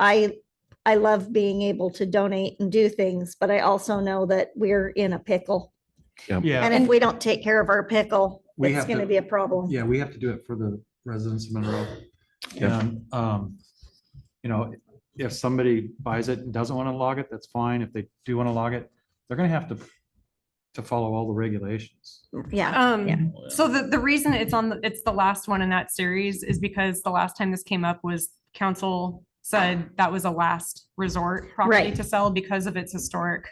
I, I love being able to donate and do things, but I also know that we're in a pickle. And Yeah, if we don't take care of our pickle, We it's have going to to- be a problem. Yeah, we have to do it for the residents of Monroe. Yeah. And, um, you know, if somebody buys it and doesn't want to log it, that's fine. If they do want to log it, they're gonna have to to follow all the regulations. Yeah. Yeah. Um, so the, the reason it's on, the it's the last one in that series is because the last time this came up was council said that was a last resort property Right. to sell because of its historic,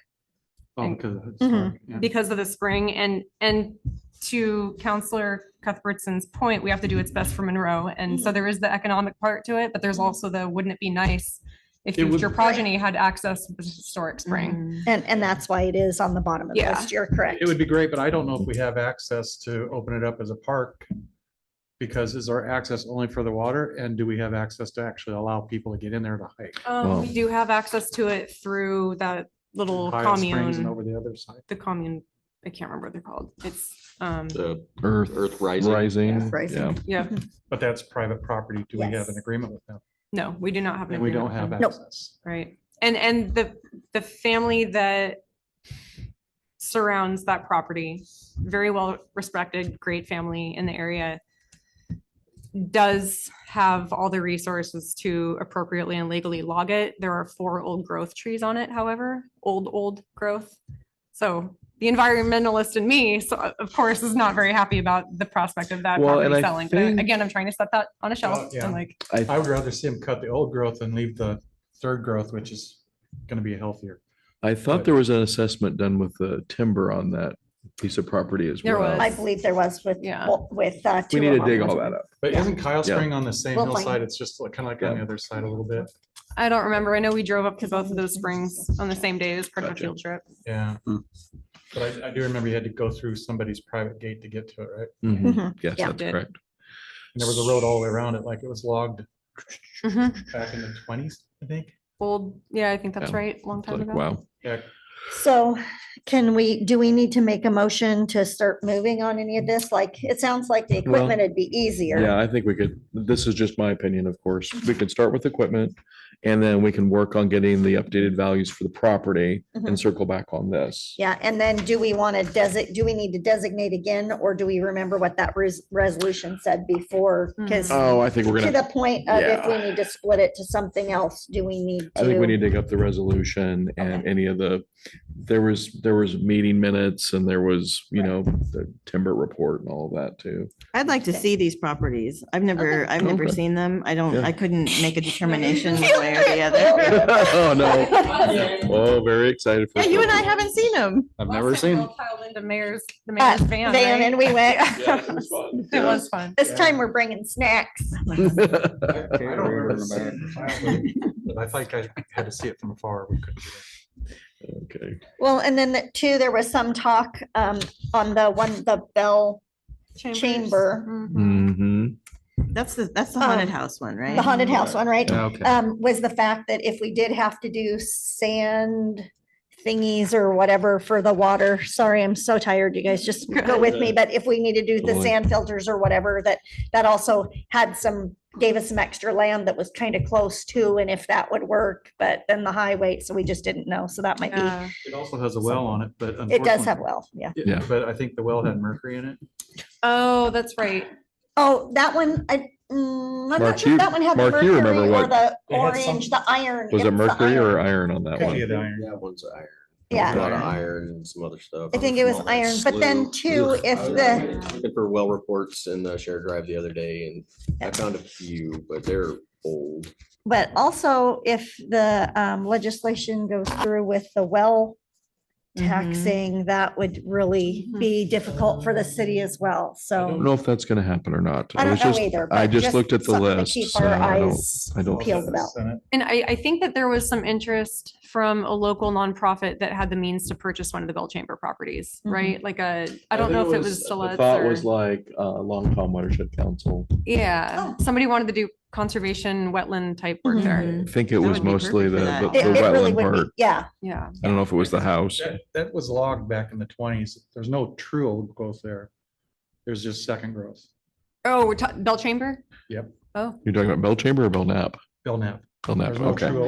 Oh, And- because of it, Mhm. sorry, yeah. because of the spring and, and to Counselor Cuthbertson's point, we have to do its best for Monroe. And Mm-hmm. so there is the economic part to it, but there's also the, wouldn't it be nice if It would- your progeny had access to the historic spring? And, and that's why it is on the bottom of the Yeah. list. You're correct. It would be great, but I don't know if we have access to open it up as a park. Because is our access only for the water and do we have access to actually allow people to get in there to hike? Um, Wow. we do have access to it through that little Hyle Springs And commune. over the other side. the commune, I can't remember what they're called. It's, um, The Earth, Earth Rising. rising. Earth Rising. Yeah. yeah, But that's private property. Do we have an Yes. agreement with them? no, we do not have. an And we agreement don't have with them. Nope. access. Right. And, and the, the family that surrounds that property, very well respected, great family in the area, does have all the resources to appropriately and legally log it. There are four old growth trees on it, however, old, old growth. So the environmentalist in me, so uh, of course, is not very happy about the prospect of that Well, and property I selling. But think- Again, I'm trying to set that on a Well, shelf yeah. and like, I would rather see them cut the old growth and leave the third growth, which is gonna be healthier. I thought there was an assessment done with the timber on that piece of property as There well. I was. believe there was with, Yeah. well, with. uh, We two need to of dig them. all that up. But isn't Kyle Yeah. Spring on the same We'll hillside? find- It's just like, kind of like on the Yeah. other side a little bit. I don't remember. I know we drove up to both of those springs on the same day as part of a Gotcha. field trip. Yeah. Hmm. But I, I do remember you had to go through somebody's private gate to get to it, right? Mhm. Mhm. Yes, Yeah. that's correct. And there was a road all the way around it, like it was logged Mm-hmm. Hmm. back in the twenties, I think. Old, yeah, I think that's Yeah. right, long time Like, ago. wow. Yeah, So can we, do we need to make a motion to start moving on any of this? Like, it sounds like the Well, equipment would be easier. Yeah, I think we could, this is just my opinion, of course. We could start with equipment and then we can work on getting the updated values for the property Mhm. and circle back on this. Yeah, and then do we want to designate, do we need to designate again, or do we remember what that res- resolution said before? Because to Oh, I think we're gonna, the point of if we Yeah. need to split it to something else, do we need I think we need to? to dig up the resolution and any of the, there was, there was meeting minutes and there was, you know, the timber report and all of that too. I'd like to Okay. see these properties. I've never, I've never Okay. seen them. I don't, Yeah. I couldn't make a determination one way or the other. Oh, no. Oh, very excited. for. Yeah, you and I Columbus. haven't seen them. I've Last time we all it. piled Into mayor's, the Uh, mayor's van. Van right? and we went, It was fun. this time we're bringing snacks. I I don't remember seeing it, but I think I had to see it from afar. We couldn't do that. Okay. Well, and then the- too, there was some talk um on the one, the Bell, Chambers. Chamber. Mhm. Mm-hmm. That's the, that's Uh, the Um, haunted house one, the right? haunted house one, right? Okay. um, was the fact that if we did have to do sand thingies or whatever for the water, sorry, I'm so tired, you guys just go with me, but if we need to do the Totally. sand filters or whatever, that, that also had some, gave us some extra land that was kind of close to, and if that would work, but then the highway, so we just didn't know, so that might be, Yeah. It also has a well on it, but it does unfortunately- have well, yeah. Yeah. Yeah, but I think the well had mercury in it. Oh, that's right. Oh, that one, I, mm, I'm not Mark, sure you- that one had the Mark, you mercury remember or what- the It had some- orange, the iron. Was it was the mercury or iron. iron on that Could be one? the iron. That one's iron. Yeah. A lot of iron and some other stuff. I think it was iron, but then too, if the, Looking for well reports in the shared drive the other day and I found a few, but they're old. But also if the um, legislation goes through with the well Mhm. taxing, that would really Mhm. be difficult for the city as well. I don't So know if that's gonna happen or not. I It was don't know just- either. I but just looked at the something to list, Keep so our I don't- eyes I don't- peeled about. Senate. And I, I think that there was some interest from a local nonprofit that had the means to purchase one of the Bell Chamber properties, Mhm. right? Like a, I don't know if it was The Stiletz thought was or, like, uh, Long Tom Watershed Council. Oh. yeah, somebody wanted to do conservation wetland type work Mm-hmm. Mm-hmm. there. I think it That was would be mostly the, perfect for the that. the It it really wetland would be, part. yeah. Yeah. I don't know if it was the house. That, that was logged back in the twenties. There's no true old growth there. There's just second growth. Oh, we're ta- Bell Chamber? Yep. Oh, You're talking about Bell Chamber or Bell Nap? Bill Knapp. On that, There's no okay. true